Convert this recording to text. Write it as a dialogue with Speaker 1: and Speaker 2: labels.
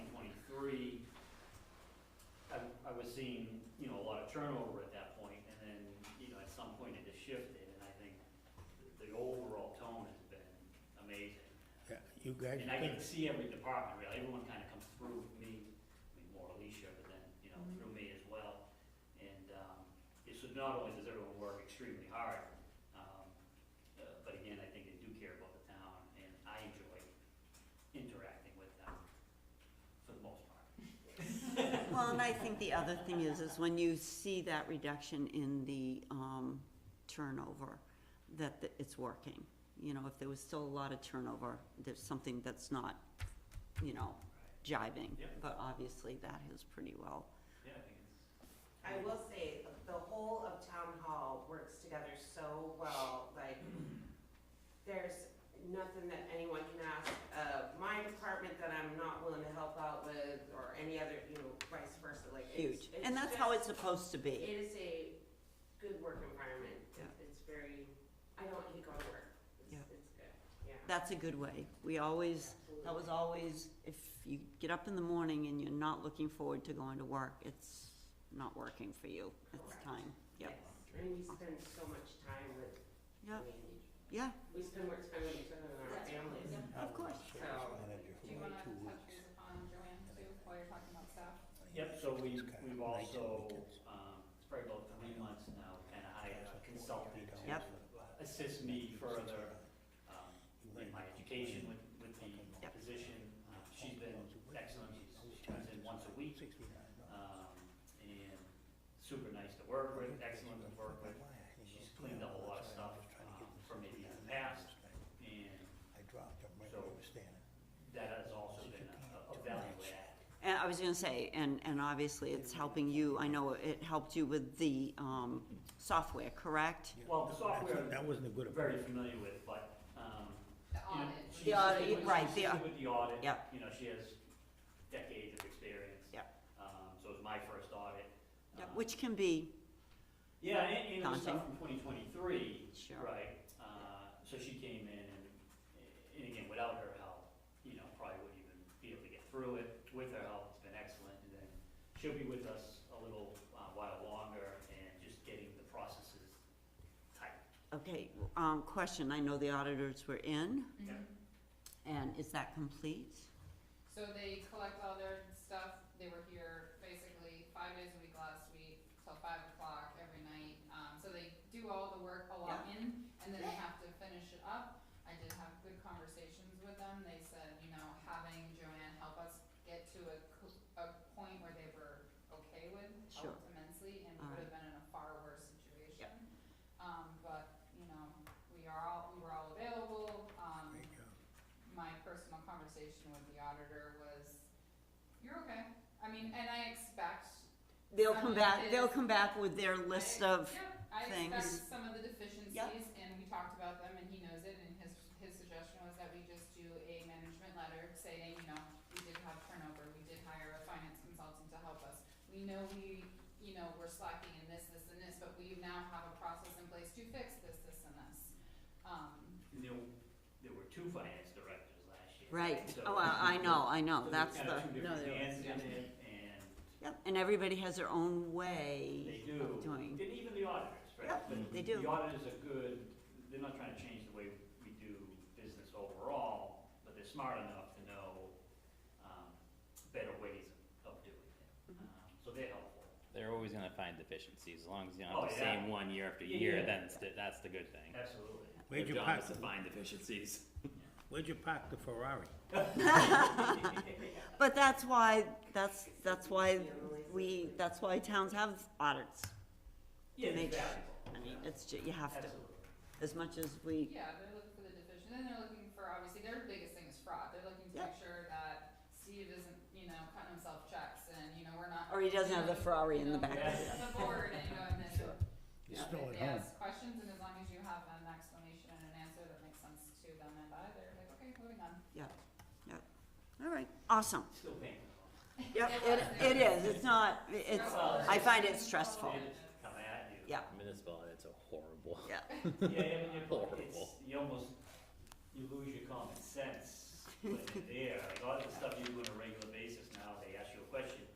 Speaker 1: you guys
Speaker 2: And I
Speaker 1: think?
Speaker 2: get to see every department, really, everyone kind of comes through me, I mean, more Alicia, but then, you know, through me as well. And, um, it's not only does everyone work extremely hard, um, uh, but again, I think they do care about the town, and I enjoy interacting with them for the most part.
Speaker 3: Well, and I think the other thing is, is when you see that reduction in the um, turnover, that th- it's working. You know, if there was still a lot of turnover, there's something that's not, you know, jiving.
Speaker 2: Yeah.
Speaker 3: But obviously, that has pretty well.
Speaker 2: Yeah, I think it's,
Speaker 4: I will say, the whole of town hall works together so well, like, there's nothing that anyone can ask of my department that I'm not willing to help out with, or any other, you know, vice versa, like, it's,
Speaker 3: Huge.
Speaker 4: it's
Speaker 3: And that's how
Speaker 4: just-
Speaker 3: it's supposed to
Speaker 4: It
Speaker 3: be.
Speaker 4: is a good work environment,
Speaker 3: Yeah.
Speaker 4: it's very, I don't hate going to work, it's,
Speaker 3: Yeah.
Speaker 4: it's good, yeah.
Speaker 3: That's a good way. We always, that was always, if you get up in the morning and you're not looking forward to going to work, it's not working for you. It's
Speaker 4: Correct.
Speaker 3: time. Yep.
Speaker 4: Yes, And we spend so much time with, I
Speaker 3: Yep,
Speaker 4: mean,
Speaker 3: yeah.
Speaker 4: we spend more time with each other than our
Speaker 5: That's-
Speaker 4: families.
Speaker 5: yeah.
Speaker 1: I was
Speaker 3: course.
Speaker 1: a Service
Speaker 4: So,
Speaker 1: manager
Speaker 5: Do you
Speaker 1: for
Speaker 5: wanna
Speaker 1: like two
Speaker 5: touch
Speaker 1: weeks.
Speaker 5: base upon Joanne too, while you're talking about staff?
Speaker 2: yep, so we,
Speaker 1: It's kinda
Speaker 2: we've
Speaker 1: nights and
Speaker 2: also,
Speaker 1: weekends.
Speaker 2: um, it's probably about three months now, kind of hired a consultant uh, to uh,
Speaker 3: Yep.
Speaker 2: assist me further, um,
Speaker 1: uh,
Speaker 2: in my education with, with the
Speaker 3: Yep.
Speaker 2: position. Uh, She's been excellent, she's, she comes in once a week, um, and super nice to work with, excellent to work with. She's cleaned up a lot of stuff, um, from maybe in the past, And
Speaker 1: I dropped him right
Speaker 2: So-
Speaker 1: where he was standing.
Speaker 2: that has also been a, a value add.
Speaker 3: And I was gonna say, and, and obviously it's helping you, I know it helped you with the, um, software, correct?
Speaker 2: Well, the software,
Speaker 1: That wasn't a good
Speaker 2: I'm
Speaker 1: approach.
Speaker 2: very familiar with, but, um,
Speaker 5: The
Speaker 2: you know,
Speaker 5: audit.
Speaker 2: she
Speaker 3: The audit,
Speaker 2: assisted with-
Speaker 3: right,
Speaker 2: she
Speaker 3: the
Speaker 2: assisted With the audit.
Speaker 3: Yep.
Speaker 2: You know, she has decades of experience.
Speaker 3: Yep.
Speaker 2: Um, so it was my first audit.
Speaker 3: Yeah,
Speaker 2: Um,
Speaker 3: Which can be,
Speaker 2: Yeah, and, and it was
Speaker 3: Daunting.
Speaker 2: stuff from twenty twenty-three,
Speaker 3: sure,
Speaker 2: right? Uh, so she came in and, and again, without her help, you know, probably wouldn't even be able to get through it. With her help, it's been excellent, and then she'll be with us a little uh, while longer and just getting the processes tight.
Speaker 3: okay, um, question, I know the auditors were in,
Speaker 2: Yeah.
Speaker 5: Mhm.
Speaker 3: and is that complete?
Speaker 5: So they collect all their stuff, they were here basically five days a week last week, till five o'clock every night. Um, so they do all the work, a lot in, and then they have to finish it up. I did have good conversations with them, they said, you know, having Joanne help us get to a, co- a point where they were okay with
Speaker 3: Sure.
Speaker 5: helped immensely, and we
Speaker 3: All
Speaker 5: would have been in a far worse situation. Um, but, you know, we are all, we were all available, um,
Speaker 1: Great job.
Speaker 5: my personal conversation with the auditor was, you're okay. I mean, and I expect.
Speaker 3: They'll
Speaker 5: Some
Speaker 3: come
Speaker 5: of
Speaker 3: back,
Speaker 5: it
Speaker 3: they'll
Speaker 5: is-
Speaker 3: come back with their
Speaker 5: I-
Speaker 3: list of,
Speaker 5: yeah, I
Speaker 3: things.
Speaker 5: expect some of the deficiencies and we talked about them and he knows it and his, his suggestion was that we just do a management letter saying, you know, we did have turnover, we did hire a finance consultant to help us. We know we, you know, we're slacking in this, this and this, but we now have a process in place to fix this, this and this. Um,
Speaker 2: And there, there were two finance directors last year.
Speaker 3: right,
Speaker 2: So-
Speaker 3: oh, I, I know, I
Speaker 2: so
Speaker 3: know,
Speaker 2: there's
Speaker 3: that's the,
Speaker 2: kinda two
Speaker 3: no,
Speaker 2: different
Speaker 3: there
Speaker 2: hands
Speaker 3: was, yeah.
Speaker 2: in it, and
Speaker 3: Yep, and everybody has their own way
Speaker 2: they do,
Speaker 3: of doing,
Speaker 2: and even the auditors, right?
Speaker 3: Yep,
Speaker 2: But
Speaker 3: they do.
Speaker 2: The auditors are good, they're not trying to change the way we do business overall, but they're smart enough to know, um, better ways of doing it.
Speaker 3: Mhm.
Speaker 2: Um, So they're helpful.
Speaker 6: They're always gonna find deficiencies, as long as you don't
Speaker 2: Oh,
Speaker 6: have the
Speaker 2: yeah.
Speaker 6: same one year after
Speaker 2: Yeah,
Speaker 6: year,
Speaker 2: yeah.
Speaker 6: then it's the- that's the good thing.
Speaker 2: Absolutely.
Speaker 1: Where'd you
Speaker 6: Their
Speaker 1: park
Speaker 6: job is to
Speaker 1: the-
Speaker 6: find deficiencies.
Speaker 1: Where'd you park the Ferrari?
Speaker 3: but that's why, that's, that's why we, that's why towns have audits.
Speaker 2: Yeah,
Speaker 3: Make
Speaker 2: it's
Speaker 3: sure-
Speaker 2: valuable.
Speaker 3: I mean, it's, ju- you have to,
Speaker 2: Absolutely.
Speaker 3: as much as we,
Speaker 5: Yeah, they're looking for the division, and they're looking for, obviously, their biggest thing is fraud, they're looking to
Speaker 3: Yep.
Speaker 5: make sure that Steve isn't, you know, cutting himself checks, and, you know, we're not.
Speaker 3: or he doesn't have the Ferrari in the back.
Speaker 2: Yeah.
Speaker 5: The board, and, you know, and then,
Speaker 3: Sure.
Speaker 1: He's
Speaker 5: Yeah,
Speaker 1: still
Speaker 5: they-
Speaker 1: at
Speaker 5: they
Speaker 1: home.
Speaker 5: ask questions, and as long as you have an explanation and an answer that makes sense to them and I, they're like, okay, moving on.
Speaker 3: All right, awesome.
Speaker 2: Still painful.
Speaker 3: Yep, it, it is, it's not, it's, I find it stressful.
Speaker 2: They just come at you.
Speaker 3: Oh. Yeah.
Speaker 6: Municipal audits are horrible.
Speaker 3: yeah.
Speaker 2: Yeah, yeah, but you're, it's,
Speaker 6: Horrible.
Speaker 2: you almost, you lose your common sense when you're there, like all the stuff you do on a regular